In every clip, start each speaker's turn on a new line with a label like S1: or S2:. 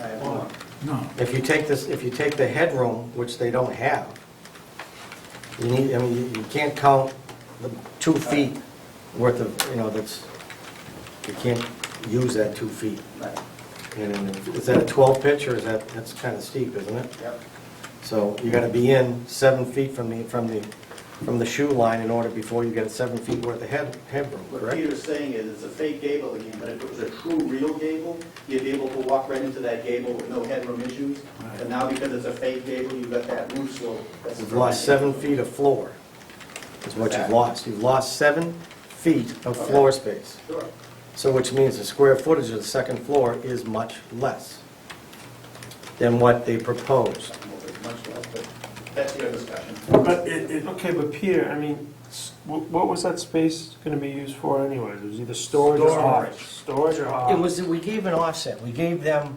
S1: I have one.
S2: No.
S3: If you take this, if you take the headroom, which they don't have, you need, I mean, you- you can't count the two feet worth of, you know, that's, you can't use that two feet.
S1: Right,
S3: And is that a 12 pitch, or is that, that's kind of steep, isn't it?
S1: yep.
S3: So you gotta be in seven feet from the, from the, from the shoe line in order, before you get a seven feet worth of head, headroom,
S1: What
S3: correct?
S1: Peter's saying is, it's a fake gable again, but if it was a true, real gable, you'd be able to walk right into that gable with no headroom issues. But now because it's a fake gable, you've got that roof slope. that's
S3: You've lost seven feet of floor, is what you've lost. You've lost seven feet of floor space.
S1: Sure.
S3: So which means the square footage of the second floor is much less than what they proposed.
S1: Well, there's much less, but that's your discussion.
S4: But it, it, okay, but Peter, I mean, s- wh- what was that space gonna be used for anyway? It was either storage or office. Storage or
S3: It
S4: office.
S3: was, we gave an offset, we gave them,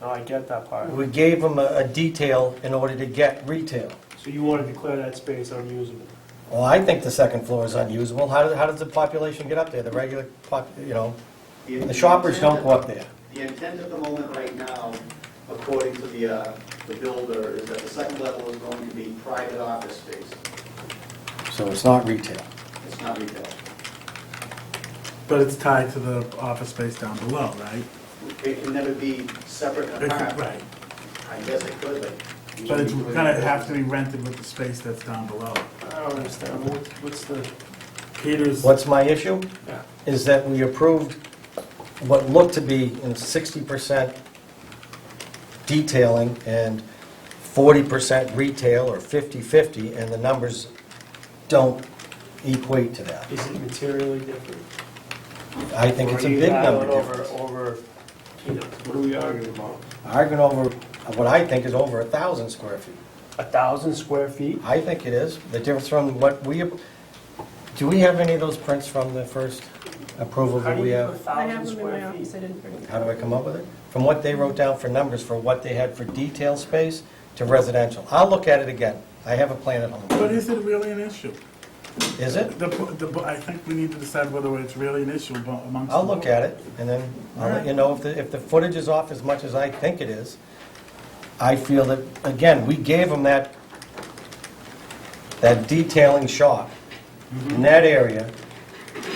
S4: No, Oh, I get that part.
S3: we gave them a a detail in order to get retail.
S4: So you wanna declare that space unusable?
S3: Well, I think the second floor is unusable. How does, how does the population get up there? The regular pop, you know, the shoppers don't go up there.
S1: The intent at the moment right now, according to the, uh, the builder, is that the second level is going to be private office space.
S3: So it's not retail.
S1: It's not retail.
S2: But it's tied to the office space down below, right?
S1: It can never be separate and
S2: It's-
S1: apart.
S2: Right.
S1: I guess it could, but.
S2: But it's gonna have to be rented with the space that's down below.
S4: I don't understand, what's, what's the,
S2: Peter's,
S3: What's my issue?
S4: yeah.
S3: Is that we approved what looked to be in sixty percent detailing and forty percent retail or 50-50, and the numbers don't equate to that.
S4: Is it materially different?
S3: I think it's a big number difference.
S4: Over, over peanuts, what are we arguing about?
S3: Arguing over, what I think is over a thousand square feet.
S4: A thousand square feet?
S3: I think it is. The difference from what we, do we have any of those prints from the first approval
S4: How
S3: that
S4: do
S3: we
S4: you do a
S3: have?
S5: I
S4: thousand
S5: have them in my
S4: square
S5: office,
S4: feet?
S5: I didn't bring them.
S3: How do I come up with it? From what they wrote down for numbers for what they had for detail space to residential. I'll look at it again. I have a plan at
S2: but
S3: home.
S2: is it really an issue?
S3: Is it?
S2: The, the, I think we need to decide whether it's really an issue abo- amongst.
S3: I'll look at it, and then I'll let you know if the, if the footage is off as much as I think it is. I feel that, again, we gave them that, that detailing shop in that area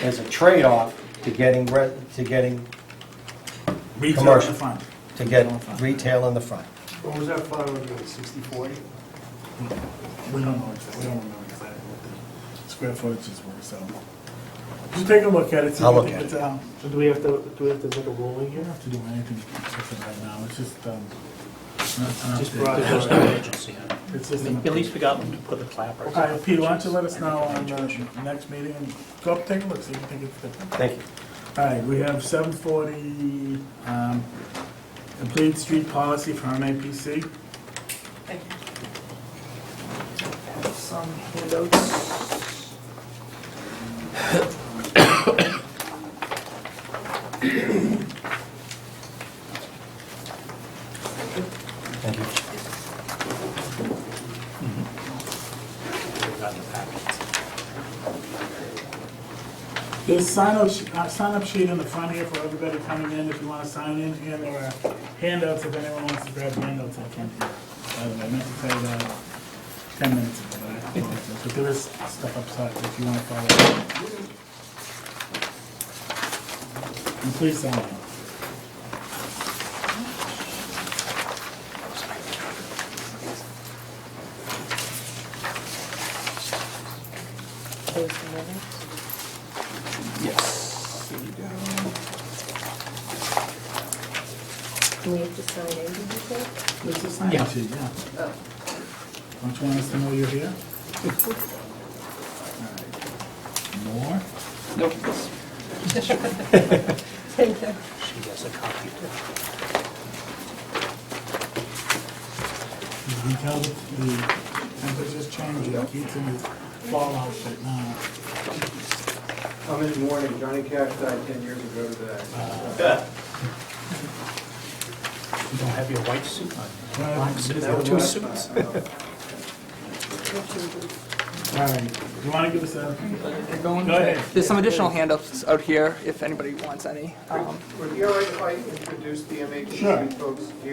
S3: as a trade-off to getting, re- to getting,
S2: Retail in
S3: commercial.
S2: the front.
S3: to get retail in the front.
S4: What was that final agreement, sixty, forty?
S2: We don't know exactly, we don't remember exactly what the square footages were, so. You take a look at it. see
S3: I'll
S2: what
S3: look
S2: you
S3: at
S2: put
S3: it.
S2: down.
S4: So do we have to, do we have to make a ruling
S2: We don't
S4: here?
S2: have to do anything with it right now, it's just, um, not- not
S6: Just
S2: the-
S6: brought it
S4: There's
S6: up.
S4: no
S2: It's just an
S6: At least we got them to put the clappers.
S2: All right, Pete, why don't you let us know on the next meeting, and go up, take a look, see if you think it's different.
S3: Thank you.
S2: All right, we have seven forty, um, complete street policy for MAPC.
S4: Some handouts.
S3: Thank you.
S6: We got the packets.
S2: There's sign up, uh, sign up sheet in the front here for everybody coming in, if you wanna sign in, and there are handouts if anyone wants to grab handouts, I can't. By the way, I meant to tell you that ten minutes ago, but I apologize, but there is stuff upside if you wanna follow. And please sign it.
S6: Yes. There you go.
S5: Do we have to sign anything?
S2: This is signage, yeah.
S6: Yeah.
S2: Don't you want us to know you're here? Alright. More?
S6: Nope.
S5: Thank you.
S6: She has a copy too.
S2: You can tell the the temperature's changing, it keeps in his fall outfit now.
S7: Come in the morning, Johnny Cash died 10 years ago today.
S1: Uh-huh.
S6: You don't have your white suit on.
S2: Black
S6: suit. There were two suits.
S2: Alright, you wanna give us a,
S8: They're going-
S2: Go ahead.
S8: There's some additional handouts out here if anybody wants any. Um,
S7: Would you all right if I introduced the
S2: Sure.
S7: MHC folks here?